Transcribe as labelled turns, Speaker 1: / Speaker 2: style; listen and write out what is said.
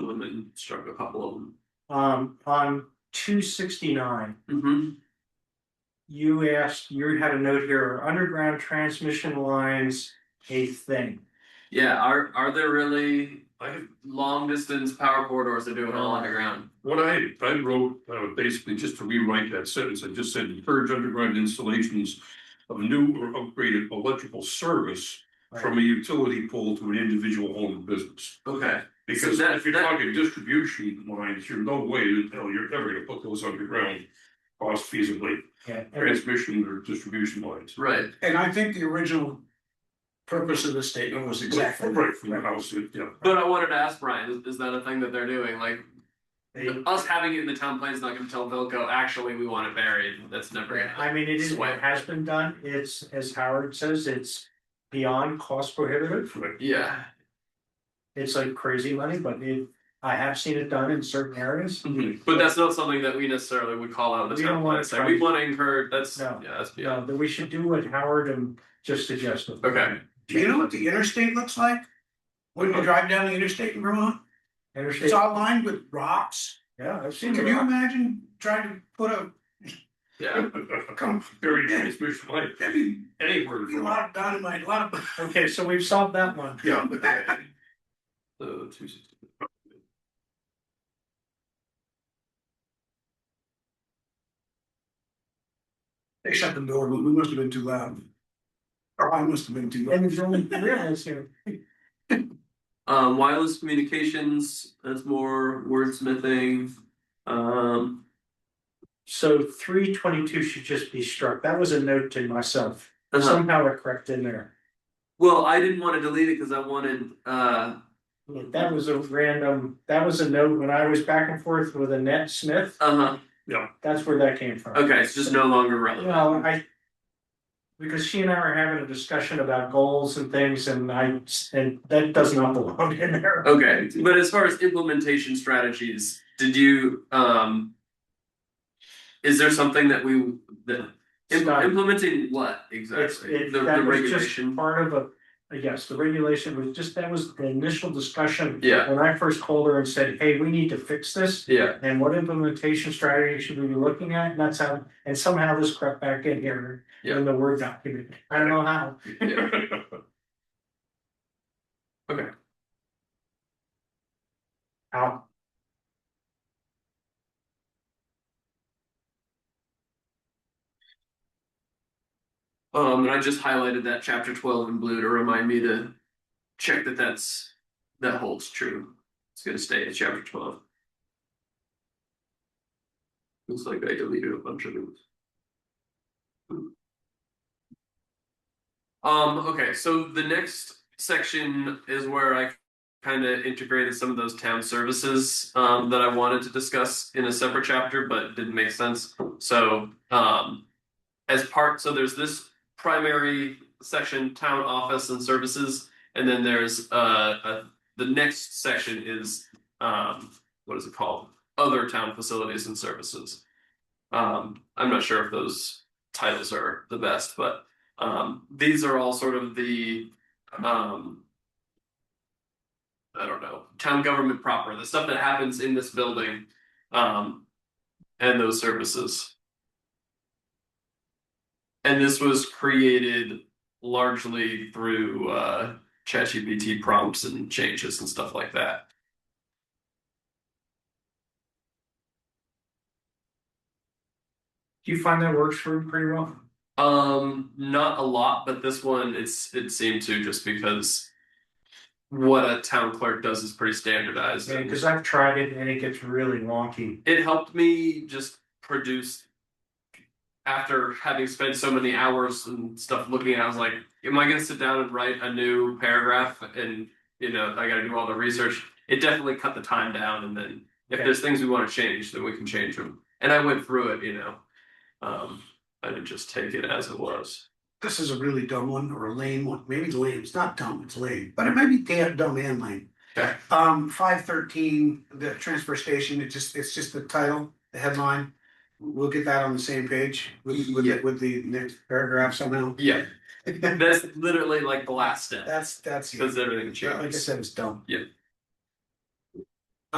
Speaker 1: you struck a couple of them.
Speaker 2: Um, on two sixty-nine,
Speaker 1: Mm-hmm.
Speaker 2: you asked, you had a note here, are underground transmission lines a thing?
Speaker 1: Yeah, are are there really like long distance power corridors that do it all underground?
Speaker 3: What I, I wrote, uh, basically just to rewrite that sentence, I just said encourage underground installations of new or upgraded electrical service from a utility pole to an individual home or business.
Speaker 1: Okay,
Speaker 3: Because
Speaker 1: that-
Speaker 3: if you're
Speaker 1: that-
Speaker 3: talking distribution lines, you're no way, to tell you're ever gonna put those underground cost feasibly,
Speaker 2: Yeah, and-
Speaker 3: transmission or distribution lines.
Speaker 1: right.
Speaker 4: And I think the original purpose of the statement was exactly.
Speaker 3: Right from the house, yeah.
Speaker 1: But I wanted to ask Brian, is, is that a thing that they're doing? Like
Speaker 2: they-
Speaker 1: us having it in the town plan is not going to tell Vilco actually we want it buried. That's never going to happen.
Speaker 2: I mean, it is, what has been done, it's, as Howard says, it's beyond cost prohibitive.
Speaker 3: Right.
Speaker 1: Yeah.
Speaker 2: It's like crazy money, but it, I have seen it done in certain areas.
Speaker 1: But that's not something that we necessarily would call out in the
Speaker 2: We
Speaker 1: town
Speaker 2: don't
Speaker 1: plan.
Speaker 2: wanna
Speaker 1: It's like, we
Speaker 2: try-
Speaker 1: want to encourage, that's, yeah,
Speaker 2: No.
Speaker 1: that's beyond.
Speaker 2: Yeah, that Uh, we should do what Howard and just suggested.
Speaker 1: Okay,
Speaker 4: Do you know what the interstate looks like? When
Speaker 3: Oh.
Speaker 4: you drive down the interstate in Vermont,
Speaker 2: Interstate,
Speaker 4: it's all lined with rocks.
Speaker 2: yeah, I've seen
Speaker 4: Can you
Speaker 2: it.
Speaker 4: imagine trying to put a,
Speaker 1: yeah.
Speaker 4: come,
Speaker 3: Very transmission line, I mean, anywhere.
Speaker 4: a lot of dynamite, a lot of.
Speaker 2: Okay, so we've solved that one.
Speaker 3: Yeah.
Speaker 1: So, two sixty.
Speaker 4: They shut the door, but we must have been too loud. Or I must have been too loud.
Speaker 2: And there's only three of us here.
Speaker 1: Um, wireless communications, that's more wordsmithing. Um,
Speaker 2: So three twenty-two should just be struck. That was a note to myself.
Speaker 1: uh-huh.
Speaker 2: Somehow it crept in there.
Speaker 1: well, I didn't want to delete it because I wanted, uh,
Speaker 2: That was a random, that was a note when I was back and forth with Annette Smith.
Speaker 1: uh-huh,
Speaker 2: That's where that came from.
Speaker 1: okay, it's just no longer relevant.
Speaker 2: Well, I. Because she and I were having a discussion about goals and things and I, and that does not belong in there.
Speaker 1: Okay, but as far as implementation strategies, did you, um. Is there something that we, that, im-
Speaker 2: Stop.
Speaker 1: implementing what
Speaker 2: It's,
Speaker 1: exactly?
Speaker 2: it,
Speaker 1: The
Speaker 2: that
Speaker 1: the
Speaker 2: was just
Speaker 1: regulation?
Speaker 2: part of a, yes, the regulation was just, that was the initial discussion.
Speaker 1: Yeah.
Speaker 2: When I first called her and said, hey, we need to fix this.
Speaker 1: Yeah,
Speaker 2: And what implementation strategy should we be looking at? And that's how, and somehow this crept back in here
Speaker 1: Yeah.
Speaker 2: in the Word document. I don't know how.
Speaker 1: yeah,
Speaker 2: How?
Speaker 1: um, and I just highlighted that chapter twelve in blue to remind me to. Check that that's, that holds true, it's gonna stay at chapter twelve. Looks like I deleted a bunch of those. Um, okay, so the next section is where I kind of integrated some of those town services um, that I wanted to discuss in a separate chapter, but didn't make sense. So, um, as part, so there's this primary section, town office and services, and then there's uh, uh the next section is um, what is it called? Other town facilities and services. Um, I'm not sure if those titles are the best, but um, these are all sort of the, um. I don't know, town government proper, the stuff that happens in this building, um, and those services. And this was created largely through, uh, ChatGPT prompts and changes and stuff like that.
Speaker 2: Do you find that works for you pretty well?
Speaker 1: Um, not a lot, but this one, it's, it seemed to just because what a town clerk does is pretty standardized. and-
Speaker 2: Because I've tried it and it gets really wonky.
Speaker 1: it helped me just produce after having spent so many hours and stuff looking at it, I was like, am I gonna sit down and write a new paragraph and you know, I gotta do all the research. It definitely cut the time down and then if
Speaker 2: Okay.
Speaker 1: there's things we wanna change, then we can change them. And I went through it, you know. Um, I didn't just take it as it was.
Speaker 4: This is a really dumb one or a lame one. Maybe it's lame. It's not dumb, it's lame, but it might be damn dumb and lame.
Speaker 1: Okay.
Speaker 4: Um, five thirteen, the transfer station, it just, it's just the title, the headline. We'll get that on the same page with, with, the-
Speaker 1: Yeah.
Speaker 4: with the next paragraph somehow.
Speaker 1: Yeah, that's literally like the last step,
Speaker 4: That's, that's, yeah.
Speaker 1: because everything
Speaker 4: like I
Speaker 1: changes.
Speaker 4: said, it's dumb.
Speaker 1: Yeah.